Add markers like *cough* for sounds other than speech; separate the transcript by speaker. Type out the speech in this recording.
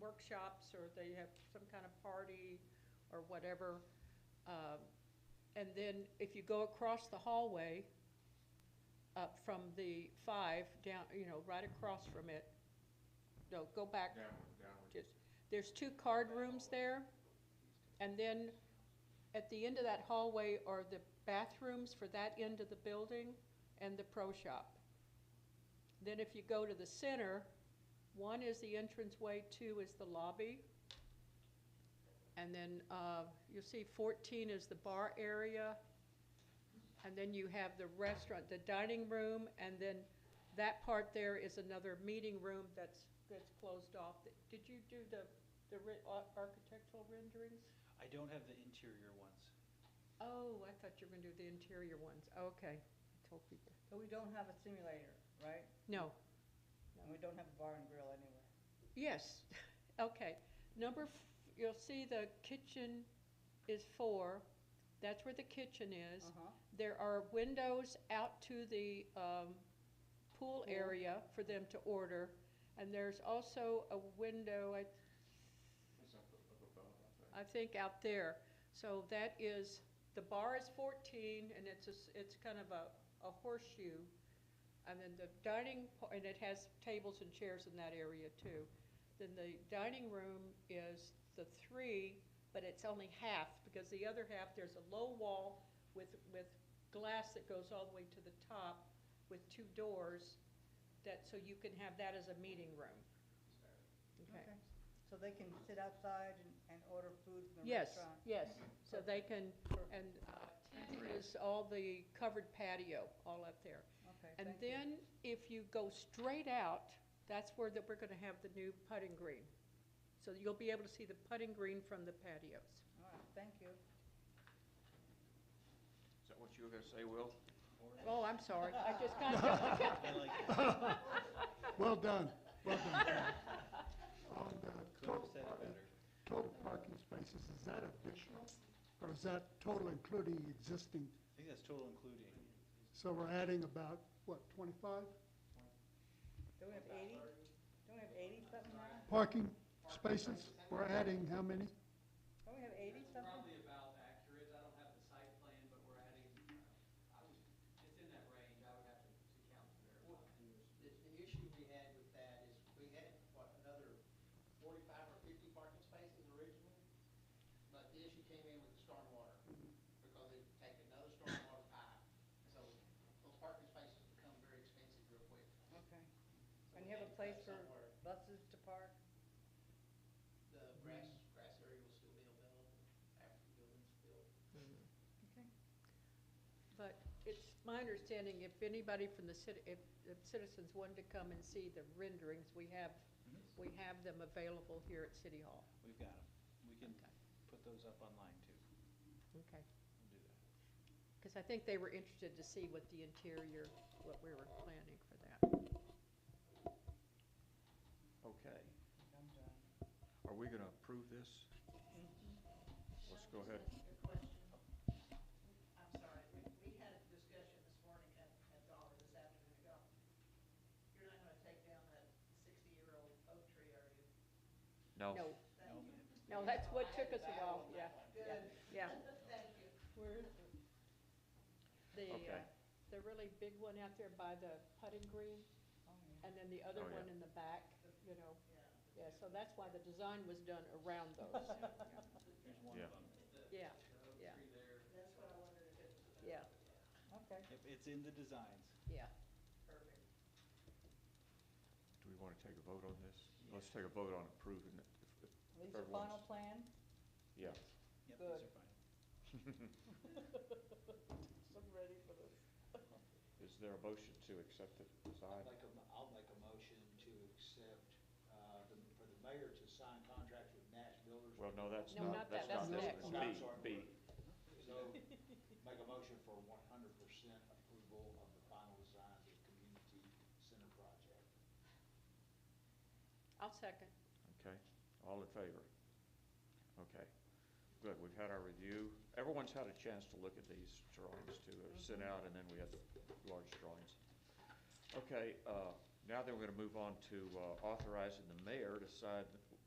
Speaker 1: workshops or they have some kind of party or whatever. Um, And then if you go across the hallway, up from the five down, you know, right across from it, no, go back
Speaker 2: Downward, downward.
Speaker 1: just, there's two card rooms there, and then at the end of that hallway are the bathrooms for that end of the building and the pro shop. Then if you go to the center, one is the entranceway, two is the lobby. And then, uh, you'll see fourteen is the bar area. And then you have the restaurant, the dining room, and then that part there is another meeting room that's, that's closed off. Did you do the, the re- ar- architectural renderings?
Speaker 3: I don't have the interior ones.
Speaker 1: Oh, I thought you were gonna do the interior ones, okay. I told people.
Speaker 4: So we don't have a simulator, right?
Speaker 1: No,
Speaker 4: And we don't have a bar and grill anywhere.
Speaker 1: yes, *laughs* okay. Number, f- you'll see the kitchen is four, that's where the kitchen is.
Speaker 4: Uh-huh.
Speaker 1: There are windows out to the um, pool
Speaker 4: Pool.
Speaker 1: area for them to order, and there's also a window, I
Speaker 2: It's up, up above, I think.
Speaker 1: I think out there. So that is, the bar is fourteen, and it's, a s- it's kind of a, a horseshoe. And then the dining, pa- and it has tables and chairs in that area too. Then the dining room is the three, but it's only half, because the other half, there's a low wall with, with glass that goes all the way to the top with two doors, that, so you can have that as a meeting room. Okay.
Speaker 4: So they can sit outside and, and order food from the
Speaker 1: Yes,
Speaker 4: restaurant?
Speaker 1: yes, so they can, and uh, ten is all the covered patio, all up there.
Speaker 4: Okay,
Speaker 1: And
Speaker 4: thank you.
Speaker 1: then if you go straight out, that's where that we're gonna have the new putting green. So you'll be able to see the putting green from the patios.
Speaker 4: All right, thank you.
Speaker 2: Is that what you were gonna say, Will?
Speaker 1: Oh, I'm sorry, I just kind of,
Speaker 4: *laughs*
Speaker 3: I like that.
Speaker 5: *laughs* Well done, well done. Oh, On
Speaker 3: Could
Speaker 5: the
Speaker 3: have
Speaker 5: total,
Speaker 3: said it
Speaker 5: parking-
Speaker 3: better.
Speaker 5: total parking spaces, is that additional? Or is that total including existing?
Speaker 3: I think that's total including.
Speaker 5: So we're adding about, what, 25
Speaker 4: Don't we have eighty? Don't we have eighty something now?
Speaker 5: parking spaces? We're adding how many?
Speaker 4: Don't we have eighty something?
Speaker 6: Probably about accurate, I don't have the site plan, but we're adding, uh, I was, it's in that range, I would have to, to count to verify.
Speaker 7: The, the issue we had with that is we had, what, another forty-five or fifty parking spaces originally? But the issue came in with the stormwater, because they take another stormwater pipe. So those parking spaces become very expensive real quick.
Speaker 4: Okay.
Speaker 7: So
Speaker 4: And
Speaker 7: we
Speaker 4: you have
Speaker 7: had
Speaker 4: a
Speaker 7: to
Speaker 4: place
Speaker 7: cut
Speaker 4: for
Speaker 7: somewhere.
Speaker 4: buses to park?
Speaker 7: The
Speaker 4: Mhm.
Speaker 7: grass, grass area will still be available after the building's built.
Speaker 1: but it's my understanding if anybody from the city, if, if citizens wanted to come and see the renderings, we have, we have them available here at City Hall.
Speaker 3: We've got them. We can
Speaker 1: Okay.
Speaker 3: put those up online too.
Speaker 1: Okay.
Speaker 3: We'll do that.
Speaker 1: Because I think they were interested to see what the interior, what we were planning for that.
Speaker 2: Okay.
Speaker 4: I'm done.
Speaker 2: Are we gonna approve this? Let's go ahead.
Speaker 7: I'm sorry, we, we had a discussion this morning at, at Dollar this afternoon ago. You're not gonna take down that sixty-year-old oak tree, are you?
Speaker 2: Oh.
Speaker 1: No, no, that's what took us a while, yeah, yeah,
Speaker 7: Good,
Speaker 1: yeah.
Speaker 7: *laughs* thank you.
Speaker 1: Where is it? The, uh,
Speaker 2: Okay.
Speaker 1: the really big one out there by the putting green,
Speaker 4: Oh, yeah.
Speaker 1: and then the other
Speaker 2: Oh, yeah.
Speaker 1: one in the back, you know. Yeah, so that's why the design was done around those,
Speaker 3: There's one
Speaker 2: Yeah.
Speaker 3: of them.
Speaker 1: yeah, yeah. Yeah,
Speaker 4: *laughs* Okay.
Speaker 3: Yep, it's in the designs.
Speaker 1: yeah.
Speaker 2: Do we wanna take a vote on this? Let's take a vote on approving it. if- if-
Speaker 4: These are final
Speaker 2: Everyone's-
Speaker 4: plan?
Speaker 2: Yeah.
Speaker 3: Yep,
Speaker 4: Good.
Speaker 3: these are fine.
Speaker 4: *laughs* I'm ready for this.
Speaker 2: *laughs* Is there a motion to accept it
Speaker 8: I'd
Speaker 2: signed?
Speaker 8: like a, mo- I'll make a motion to accept, uh, the- for the mayor to sign contracts with Nash Builders.
Speaker 2: Well, no, that's
Speaker 1: No, not
Speaker 2: not, that's
Speaker 1: that,
Speaker 2: not
Speaker 1: that's
Speaker 2: this
Speaker 1: next.
Speaker 2: one.
Speaker 8: I'm sorry.
Speaker 2: B, B.
Speaker 7: *laughs*
Speaker 8: So, make a motion for one hundred percent approval of the final designs of community center project.
Speaker 1: I'll second.
Speaker 2: Okay, all in favor? Okay, good, we've had our review. Everyone's had a chance to look at these drawings too, they were sent out, and then we had the large drawings. Okay, uh, now then we're gonna move on to uh, authorizing the mayor to sign